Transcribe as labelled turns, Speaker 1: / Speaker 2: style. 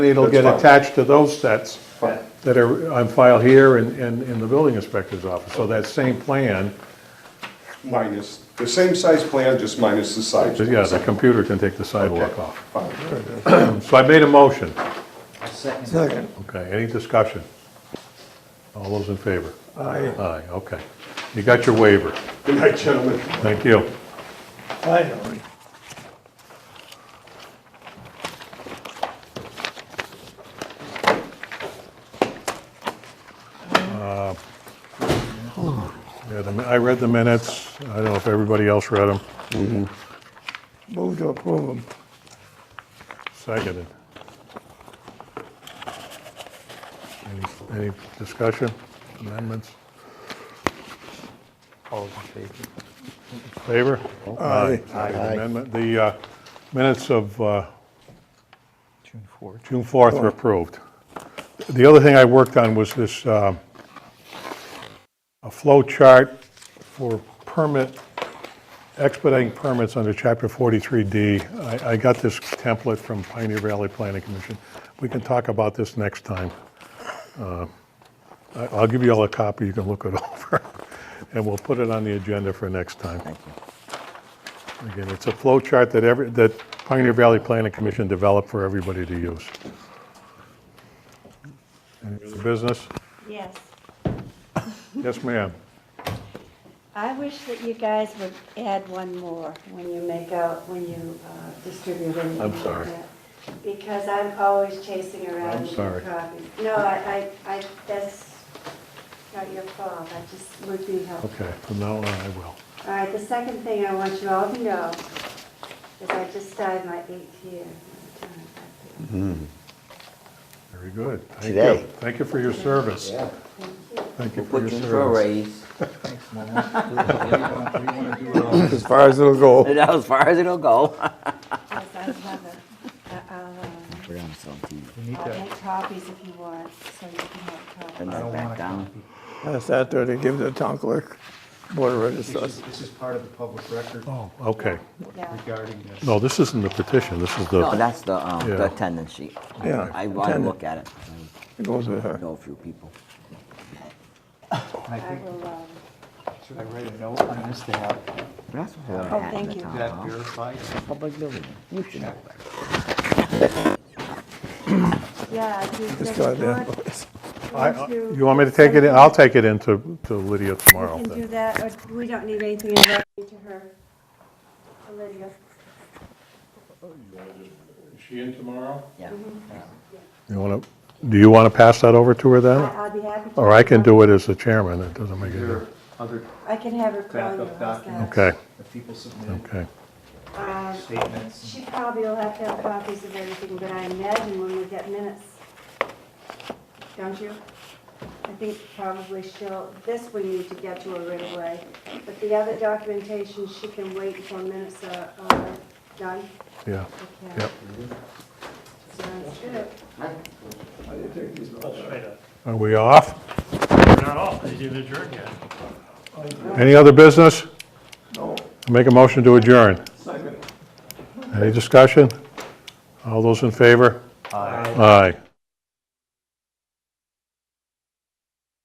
Speaker 1: It'll
Speaker 2: That's
Speaker 1: get
Speaker 2: fine.
Speaker 1: attached to those sets
Speaker 2: Fine.
Speaker 1: that are on file here and, and in the building inspector's office. So that same plan,
Speaker 2: Minus, the same size plan, just minus the size.
Speaker 1: but yeah, the computer can take the sidewalk
Speaker 2: Okay.
Speaker 1: off.
Speaker 2: Fine.
Speaker 1: So I made a motion.
Speaker 3: Second.
Speaker 4: Second,
Speaker 1: Okay, any discussion? All those in favor?
Speaker 4: aye,
Speaker 1: Aye, okay. You got your waiver.
Speaker 2: Good night, gentlemen.
Speaker 1: Thank you.
Speaker 4: finally.
Speaker 1: Yeah, the- I read the minutes. I don't know if everybody else read them.
Speaker 4: Move to approve them.
Speaker 1: Seconded. Any- Any discussion, amendments? Favor?
Speaker 4: Aye.
Speaker 1: Amendment, the uh, minutes of uh,
Speaker 3: June 4th.
Speaker 1: June 4th are approved. The other thing I worked on was this, uh, a flow chart for permit, expediting permits under Chapter 43D. I I got this template from Pioneer Valley Planning Commission. We can talk about this next time. Uh, I- I'll give you all a copy, you can look it over, and we'll put it on the agenda for next time. Thank you. Again, it's a flow chart that every, that Pioneer Valley Planning Commission developed for everybody to use. Any other business?
Speaker 5: Yes,
Speaker 1: Yes, ma'am.
Speaker 5: I wish that you guys would add one more when you make out, when you uh, distribute anything.
Speaker 1: I'm
Speaker 5: like
Speaker 1: sorry.
Speaker 5: that. Because I'm always chasing around.
Speaker 1: I'm
Speaker 5: new
Speaker 1: sorry.
Speaker 5: copies. No, I, I, I, that's not your fault, I just would be helpful.
Speaker 1: Okay, from now on, I will.
Speaker 5: All right, the second thing I want you all to know is I just started my eighth year. I'm doing it back there.
Speaker 1: Very good. Thank you.
Speaker 6: Today.
Speaker 1: Thank you for your service.
Speaker 6: Yeah,
Speaker 1: Thank you for your
Speaker 6: put you for a
Speaker 1: service.
Speaker 6: raise.
Speaker 4: As far as it'll go.
Speaker 6: That's as far as it'll go.
Speaker 5: Yes, I have it. I- I'll, uh,
Speaker 6: We're on something.
Speaker 3: We need
Speaker 5: I'll
Speaker 3: to,
Speaker 5: make copies if you want, so you can have copies.
Speaker 6: Turn
Speaker 3: I
Speaker 6: that
Speaker 3: don't want
Speaker 6: back
Speaker 3: to
Speaker 6: down.
Speaker 3: copy.
Speaker 4: Pass that there to give the town clerk, board of
Speaker 3: This is,
Speaker 4: registers.
Speaker 3: this is part of the public record
Speaker 1: Oh, okay.
Speaker 5: Yeah.
Speaker 3: regarding this.
Speaker 1: No, this isn't the petition, this is
Speaker 6: No,
Speaker 1: the,
Speaker 6: that's the, um,
Speaker 1: Yeah.
Speaker 6: the attendance sheet.
Speaker 4: Yeah,
Speaker 6: I want to
Speaker 4: attendance.
Speaker 6: look at it.
Speaker 4: It goes with
Speaker 6: I
Speaker 4: her.
Speaker 6: know a few people.
Speaker 3: And I
Speaker 5: I
Speaker 3: think,
Speaker 5: will, um,
Speaker 3: should I write a note on this to have
Speaker 6: We're not supposed to have
Speaker 5: Oh,
Speaker 6: a hat in
Speaker 5: thank
Speaker 6: the
Speaker 5: you.
Speaker 6: town
Speaker 3: that
Speaker 6: hall.
Speaker 3: verified?
Speaker 6: Uh-huh. Public building. You should know that.
Speaker 5: Yeah, he's
Speaker 4: It's
Speaker 5: next
Speaker 4: got
Speaker 5: door.
Speaker 4: that voice.
Speaker 1: I-
Speaker 5: Want
Speaker 1: I-
Speaker 5: to-
Speaker 1: you want me to take it in? I'll take it in to to Lydia tomorrow.
Speaker 5: You can do
Speaker 1: then.
Speaker 5: that, or we don't need anything in writing to her, to Lydia.
Speaker 6: Yeah.
Speaker 1: You want to, do you want to pass that over to her
Speaker 5: I-
Speaker 1: then?
Speaker 5: I'll be happy to.
Speaker 1: Or I can do it as the chairman, it doesn't make any
Speaker 3: There are
Speaker 1: difference.
Speaker 3: other,
Speaker 5: I can have her call you.
Speaker 3: Backup
Speaker 5: how's that?
Speaker 3: documents.
Speaker 1: Okay,
Speaker 3: the people submitted
Speaker 1: okay.
Speaker 5: Um,
Speaker 3: statements.
Speaker 5: She probably will have to have copies of everything, but I imagine when we get minutes, don't you? I think probably she'll, this we need to get to her right away, but the other documentation, she can wait until minutes are are done.
Speaker 1: Yeah,
Speaker 5: Okay.
Speaker 1: Yep.
Speaker 5: Sounds good.
Speaker 1: are we off? We're not off, Any other business?
Speaker 4: No.
Speaker 1: Make a motion to adjourn.
Speaker 4: Second.
Speaker 1: Any discussion? All those in favor? Aye. Aye.